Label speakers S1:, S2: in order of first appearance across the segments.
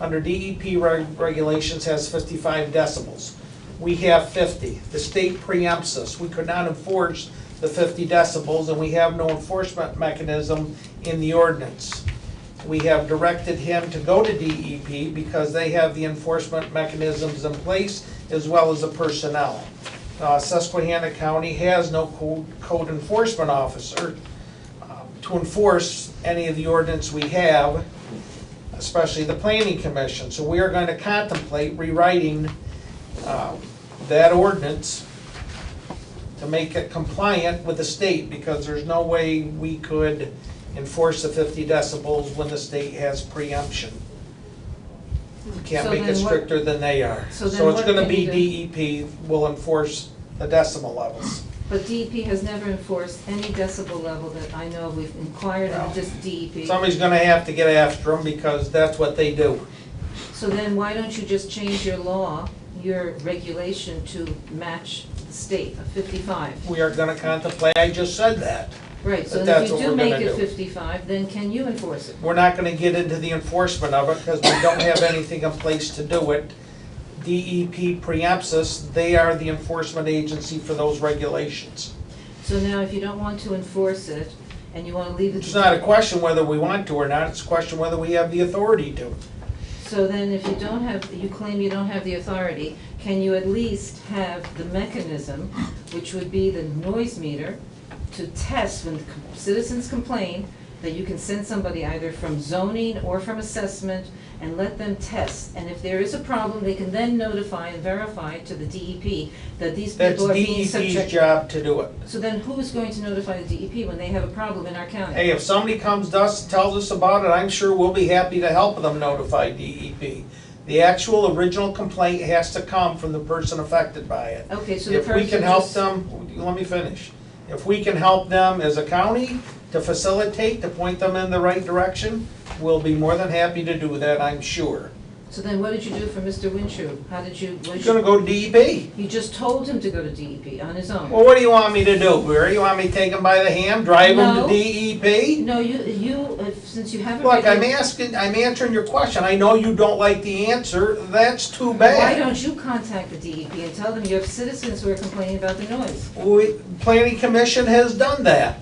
S1: under DEP reg- regulations has 55 decibels. We have 50. The state preempts us. We could not enforce the 50 decibels, and we have no enforcement mechanism in the ordinance. We have directed him to go to DEP because they have the enforcement mechanisms in place as well as the personnel. Uh, Susquehanna County has no co- code enforcement officer um, to enforce any of the ordinance we have, especially the planning commission. So we are going to contemplate rewriting um, that ordinance to make it compliant with the state, because there's no way we could enforce the 50 decibels when the state has preemption. Can't
S2: So
S1: make it
S2: then what-
S1: stricter than they are.
S2: So then
S1: So it's
S2: what
S1: gonna
S2: can
S1: be
S2: you
S1: DEP will enforce the decimal levels.
S2: But DEP has never enforced any decibel level that I know of. We've inquired
S1: Well,
S2: of E this DEP.
S1: Somebody's gonna have to get after them, because that's what they do.
S2: So then why don't you just change your law, your regulation to match the state of fifty-five?
S1: We are gonna contemplate, I just said that.
S2: Right, so
S1: But
S2: then
S1: that's
S2: if you
S1: what we're
S2: do make
S1: gonna
S2: it
S1: do.
S2: fifty-five, then can you enforce it?
S1: We're not gonna get into the enforcement of it, because we don't have anything in place to do it. DEP preempts us, they are the enforcement agency for those regulations.
S2: So now if you don't want to enforce it and you wanna leave it.
S1: It's
S2: to-
S1: not a question whether we want to or not, it's a question whether we have the authority to.
S2: So then if you don't have, you claim you don't have the authority, can you at least have the mechanism, which would be the noise meter, to test when c- citizens complain, that you can send somebody either from zoning or from assessment and let them test? And if there is a problem, they can then notify and verify to the DEP that these
S1: That's
S2: people are being subjected.
S1: DEP's job to do it.
S2: So then who's going to notify the DEP when they have a problem in our county?
S1: Hey, if somebody comes to us and tells us about it, I'm sure we'll be happy to help them notify DEP. The actual original complaint has to come from the person affected by it.
S2: Okay, so the
S1: If we
S2: person
S1: can help
S2: just-
S1: them, let me finish. If we can help them as a county to facilitate, to point them in the right direction, we'll be more than happy to do that, I'm sure.
S2: So then what did you do for Mr. Winshue? How did you, what did
S1: He's
S2: you?
S1: gonna go to DEP.
S2: You just told him to go to DEP on his own.
S1: Well, what do you want me to do, Barry? You want me to take him by the hand, drive him
S2: No.
S1: to E DEP?
S2: No, you, you, if- since you haven't.
S1: Look, I'm
S2: really-
S1: asking, I'm answering your question. I know you don't like the answer. That's too
S2: Why
S1: bad.
S2: don't you contact the DEP and tell them you have citizens who are complaining about the noise?
S1: We, planning commission has done that.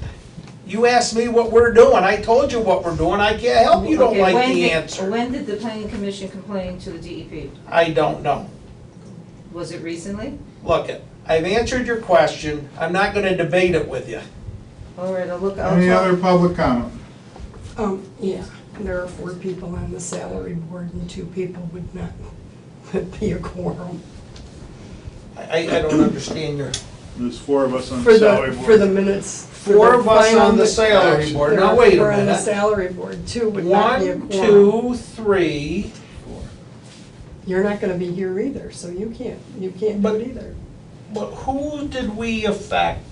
S1: You asked me what we're doing. I told you what we're doing. I can't help you don't
S2: Okay,
S1: like
S2: when
S1: the
S2: did-
S1: answer.
S2: When did the planning commission complain to the DEP?
S1: I don't know.
S2: Was it recently?
S1: Look, it, I've answered your question. I'm not gonna debate it with you.
S2: All right, I'll look, I'll.
S3: Any
S2: talk-
S3: other public comment?
S4: Um, yeah, there are four people on the salary board and two people would not, would be a quorum.
S1: I, I I don't understand your,
S3: There's four of us on
S4: For
S3: the
S4: the,
S3: salary
S4: for the
S3: board.
S4: minutes. for
S1: four
S4: the
S1: of us
S4: final
S1: on the
S4: mi-
S1: salary board.
S4: There
S1: Now,
S4: are
S1: wait a
S4: four on the
S1: minute.
S4: salary board, two would not be a
S1: One,
S4: quorum.
S1: two, three.
S4: You're not gonna be here either, so you can't, you can't do
S1: But-
S4: it either.
S1: But who did we affect?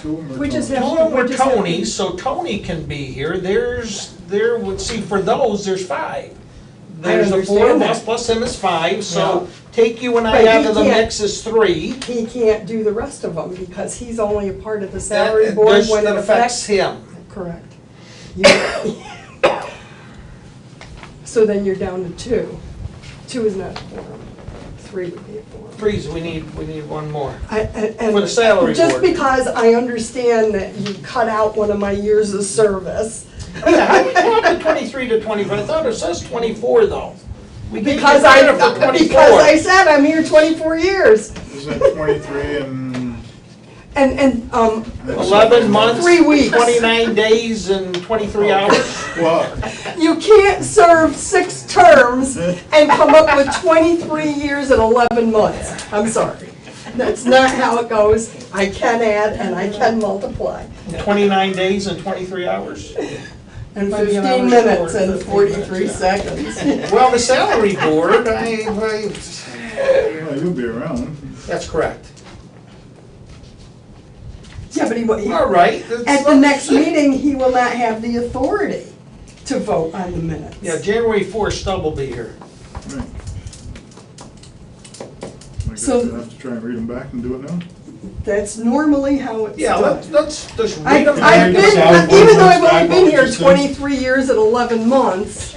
S3: Two of them are
S4: We just
S3: total.
S4: have-
S1: Two of them were
S4: We're just happy.
S1: Tony, so Tony can be here, there's, there would, see, for those, there's five. There's the four of
S4: understand
S1: us
S4: that.
S1: plus him is five, so take you and I
S4: But
S1: out
S4: he
S1: of the
S4: can't-
S1: mix is three.
S4: He can't do the rest of them because he's only a part of the
S1: That-
S4: salary board
S1: this-
S4: when
S1: That
S4: it
S1: affects
S4: affects.
S1: him.
S4: Correct. You- So then you're down to two. Two is not a quorum. Three would be a quorum.
S1: Freeze, we need, we need one more.
S4: I- and- and
S1: For the salary
S4: Just
S1: board.
S4: because I understand that you cut out one of my years of service,
S1: Yeah, how we come up with twenty-three to twenty-five? I thought it says twenty-four though. We gave you
S4: because I,
S1: credit for
S4: because I
S1: 24.
S4: said I'm here twenty-four years.
S3: Isn't it twenty-three and?
S4: And, and, um,
S3: that's-
S1: Eleven months,
S4: Three weeks. Oh.
S1: twenty-nine days and twenty-three hours.
S3: Well,
S4: you can't serve six terms and come up with twenty-three years and eleven months. I'm sorry. That's not how it goes. I can add and I can multiply.
S1: Twenty-nine days and twenty-three hours?
S4: And
S1: Might be an hour
S4: fifteen minutes
S1: short, 15
S4: and
S1: minutes,
S4: forty-three
S1: yeah.
S4: seconds.
S1: Well, the salary board, I, I,
S3: well, you'll be around.
S1: that's correct.
S4: Yeah, but he, wa- he
S1: All right. that's-
S4: At the next meeting, he will not have the authority to vote on the minutes.
S1: Yeah, January fourth, Stubb will be here.
S3: Right. I guess
S4: So-
S3: you'll have to try and read them back and do it now.
S4: That's normally how it's
S1: Yeah, let's,
S4: done.
S1: let's just
S4: I-
S1: read them.
S3: I-
S4: I've been,
S3: Salary board
S4: even though
S3: votes
S4: I've
S3: back
S4: only
S3: what
S4: been
S3: you
S4: here
S3: said.
S4: twenty-three years and eleven months,